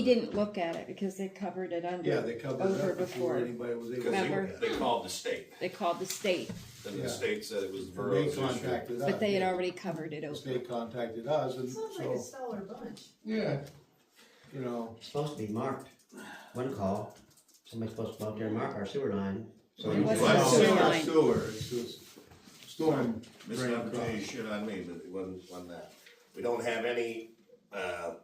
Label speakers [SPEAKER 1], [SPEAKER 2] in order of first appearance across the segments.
[SPEAKER 1] He didn't look at it because they covered it under.
[SPEAKER 2] Yeah, they covered it
[SPEAKER 1] over
[SPEAKER 2] up before
[SPEAKER 1] before.
[SPEAKER 2] anybody was able to
[SPEAKER 3] Because
[SPEAKER 2] look
[SPEAKER 1] Remember?
[SPEAKER 2] at it.
[SPEAKER 3] they, they called the state,
[SPEAKER 1] They called the state,
[SPEAKER 3] and
[SPEAKER 2] Yeah.
[SPEAKER 3] the state said it was the
[SPEAKER 2] They
[SPEAKER 3] borough's issue.
[SPEAKER 2] contacted us.
[SPEAKER 1] but they had already covered it
[SPEAKER 2] The
[SPEAKER 1] over.
[SPEAKER 2] Uh, state contacted us and
[SPEAKER 4] Sounds like a
[SPEAKER 2] so,
[SPEAKER 4] stellar bunch.
[SPEAKER 2] yeah, you know,
[SPEAKER 5] It's supposed to be marked. One call, somebody's supposed to go out there and mark our sewer line. So
[SPEAKER 1] It
[SPEAKER 5] you
[SPEAKER 1] wasn't
[SPEAKER 5] just-
[SPEAKER 1] a sewer
[SPEAKER 2] Sewer,
[SPEAKER 1] line.
[SPEAKER 2] sewer, it's just storm
[SPEAKER 3] Missed
[SPEAKER 2] drain
[SPEAKER 3] an opportunity,
[SPEAKER 2] across.
[SPEAKER 3] shit on me, but it wasn't, wasn't that. We don't have any, uh,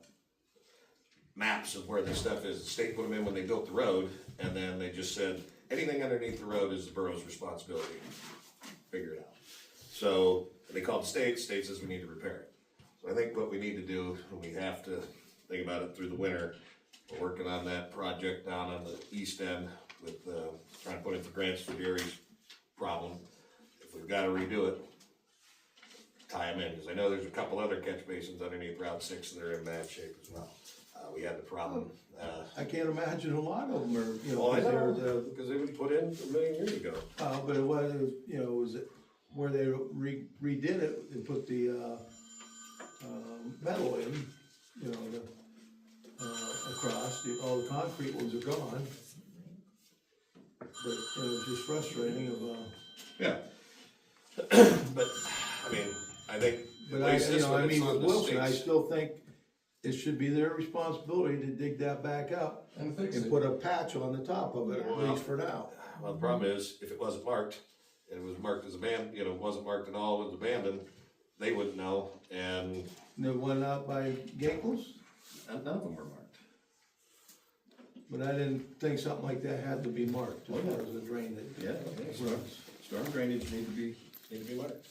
[SPEAKER 3] maps of where this stuff is. The state put them in when they built the road, and then they just said, anything underneath the road is the borough's responsibility. Figure it out. So, they called the state, state says we need to repair it. So I think what we need to do, and we have to think about it through the winter, we're working on that project down on the east end with, uh, trying to put in for grants for Gary's problem. If we've gotta redo it, tie them in, because I know there's a couple other catch basins underneath Route Six that are in bad shape as well. Uh, we had the problem, uh,
[SPEAKER 2] I can't imagine a lot of them are, you know,
[SPEAKER 3] well, I
[SPEAKER 2] 'cause
[SPEAKER 3] know,
[SPEAKER 2] they're the,
[SPEAKER 3] because they were put in a million years ago.
[SPEAKER 2] uh, but it was, you know, it was where they re- redid it and put the, uh, uh, metal in, you know, the, uh, across, the- all the concrete ones are gone. But, you know, it's just frustrating of, uh,
[SPEAKER 3] Yeah. But, I mean, I think, at
[SPEAKER 2] But I,
[SPEAKER 3] least
[SPEAKER 2] you
[SPEAKER 3] this
[SPEAKER 2] know,
[SPEAKER 3] one,
[SPEAKER 2] I
[SPEAKER 3] it's
[SPEAKER 2] mean, with
[SPEAKER 3] on the
[SPEAKER 2] Wilson, I
[SPEAKER 3] state's.
[SPEAKER 2] still think it should be their responsibility to dig that back up
[SPEAKER 6] And fix
[SPEAKER 2] and
[SPEAKER 6] it.
[SPEAKER 2] put a patch on the top of it, at
[SPEAKER 3] Yeah.
[SPEAKER 2] least for now.
[SPEAKER 3] Well, the problem is, if it wasn't marked, and it was marked as abandoned, you know, wasn't marked at all, was abandoned, they wouldn't know, and
[SPEAKER 2] And The one out by Gankles,
[SPEAKER 3] and none of them were marked.
[SPEAKER 2] but I didn't think something like that had to be marked, as far as the drain that.
[SPEAKER 3] Oh, Yeah, okay, storm, storm drainage need to be, need to be marked.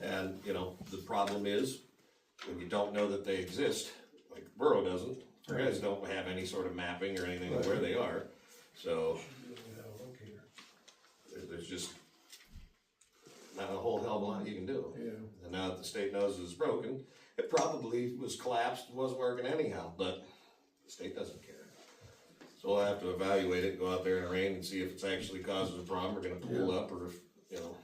[SPEAKER 3] And, you know, the problem is, when you don't know that they exist, like the borough doesn't, you guys don't have any sort of mapping or anything of where they are, so. There- There's just not a whole hell of a lot you can do.
[SPEAKER 2] Yeah.
[SPEAKER 3] And now that the state knows it's broken, it probably was collapsed, wasn't working anyhow, but the state doesn't care. So we'll have to evaluate it, go out there in the rain and see if it's actually causing a problem, we're gonna pull up, or if, you know,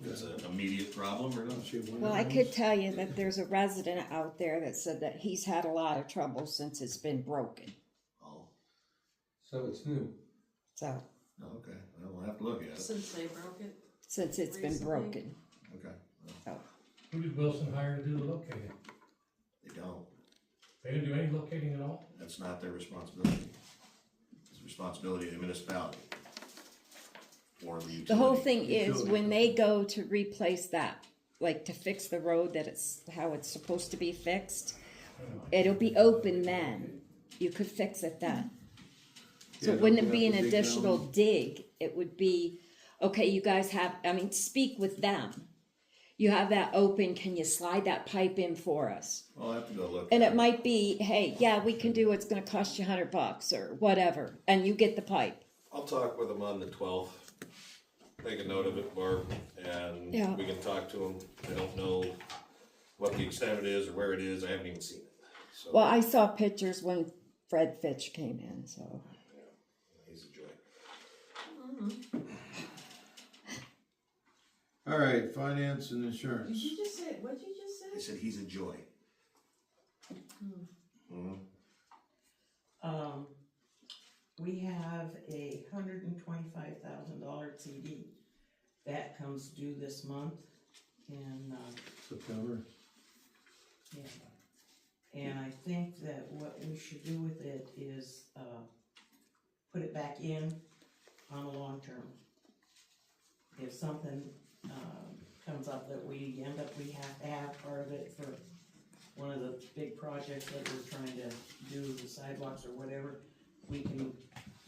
[SPEAKER 3] if it's an immediate problem or not.
[SPEAKER 2] See, one
[SPEAKER 1] Well,
[SPEAKER 2] of
[SPEAKER 1] I
[SPEAKER 2] them.
[SPEAKER 1] could tell you that there's a resident out there that said that he's had a lot of trouble since it's been broken,
[SPEAKER 3] Oh,
[SPEAKER 6] So it's new.
[SPEAKER 1] so,
[SPEAKER 3] okay, well, we'll have to look at it,
[SPEAKER 4] Since they broke it.
[SPEAKER 1] since it's been
[SPEAKER 4] Recently?
[SPEAKER 1] broken.
[SPEAKER 3] okay.
[SPEAKER 1] So,
[SPEAKER 7] Who did Wilson hire to do the locating?
[SPEAKER 3] They don't,
[SPEAKER 7] They didn't do any locating at all?
[SPEAKER 3] that's not their responsibility. It's the responsibility of the municipality. Or the utility.
[SPEAKER 1] The whole thing is, when they go to replace that, like to fix the road that it's, how it's supposed to be fixed, it'll be open then, you could fix it then. So
[SPEAKER 2] Yeah,
[SPEAKER 1] wouldn't
[SPEAKER 2] we
[SPEAKER 1] it be
[SPEAKER 2] have
[SPEAKER 1] an
[SPEAKER 2] to dig down.
[SPEAKER 1] additional dig? It would be, okay, you guys have, I mean, speak with them. You have that open, can you slide that pipe in for us?
[SPEAKER 3] I'll have to go look.
[SPEAKER 1] And
[SPEAKER 3] at
[SPEAKER 1] it might be, hey, yeah, we can do, it. it's gonna cost you a hundred bucks or whatever, and you get the pipe.
[SPEAKER 3] I'll talk with them on the twelfth. Make a note of it, Barb, and
[SPEAKER 1] Yeah.
[SPEAKER 3] we can talk to them. I don't know what the extent of it is or where it is. I haven't even seen it. So
[SPEAKER 1] Well, I saw pictures when Fred Fitch came in, so.
[SPEAKER 3] he's a joy.
[SPEAKER 2] All right, finance and insurance.
[SPEAKER 4] Did you just say, what'd you just
[SPEAKER 3] I
[SPEAKER 4] say?
[SPEAKER 3] said he's a joy.
[SPEAKER 8] Um, we have a hundred and twenty-five thousand dollar CD. That comes due this month and, uh,
[SPEAKER 1] Mm-hmm.
[SPEAKER 2] September.
[SPEAKER 8] yeah. And I think that what we should do with it is, uh, put it back in on a long term. If something, um, comes up that we end up, we have to have part of it for one of the big projects that we're trying to do, the sidewalks or whatever, we can,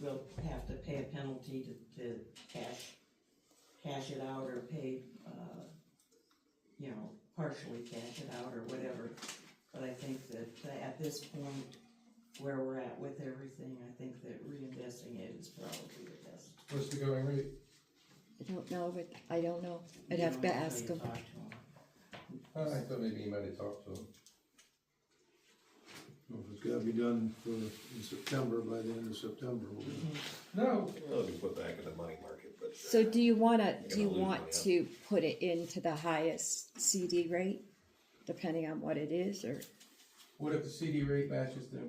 [SPEAKER 8] we'll have to pay a penalty to, to cash, cash it out or pay, uh, you know, partially cash it out or whatever. But I think that that at this point, where we're at with everything, I think that reinvesting it is probably the best.
[SPEAKER 6] What's the going rate?
[SPEAKER 1] I don't know, but I don't know. I'd have to
[SPEAKER 8] You know,
[SPEAKER 1] ask
[SPEAKER 8] until
[SPEAKER 1] them.
[SPEAKER 8] you talk to 'em.
[SPEAKER 6] I thought maybe you might have talked to him.
[SPEAKER 2] Well, If it's gotta be done for, in September, by the end of September, we'll
[SPEAKER 6] No,
[SPEAKER 3] Well, we put back in the money market, but uh,
[SPEAKER 1] So do you wanna, do you
[SPEAKER 3] You're gonna lose
[SPEAKER 1] want to put it into the highest CD rate? Depending on what it is, or,
[SPEAKER 6] what if the CD rate matches the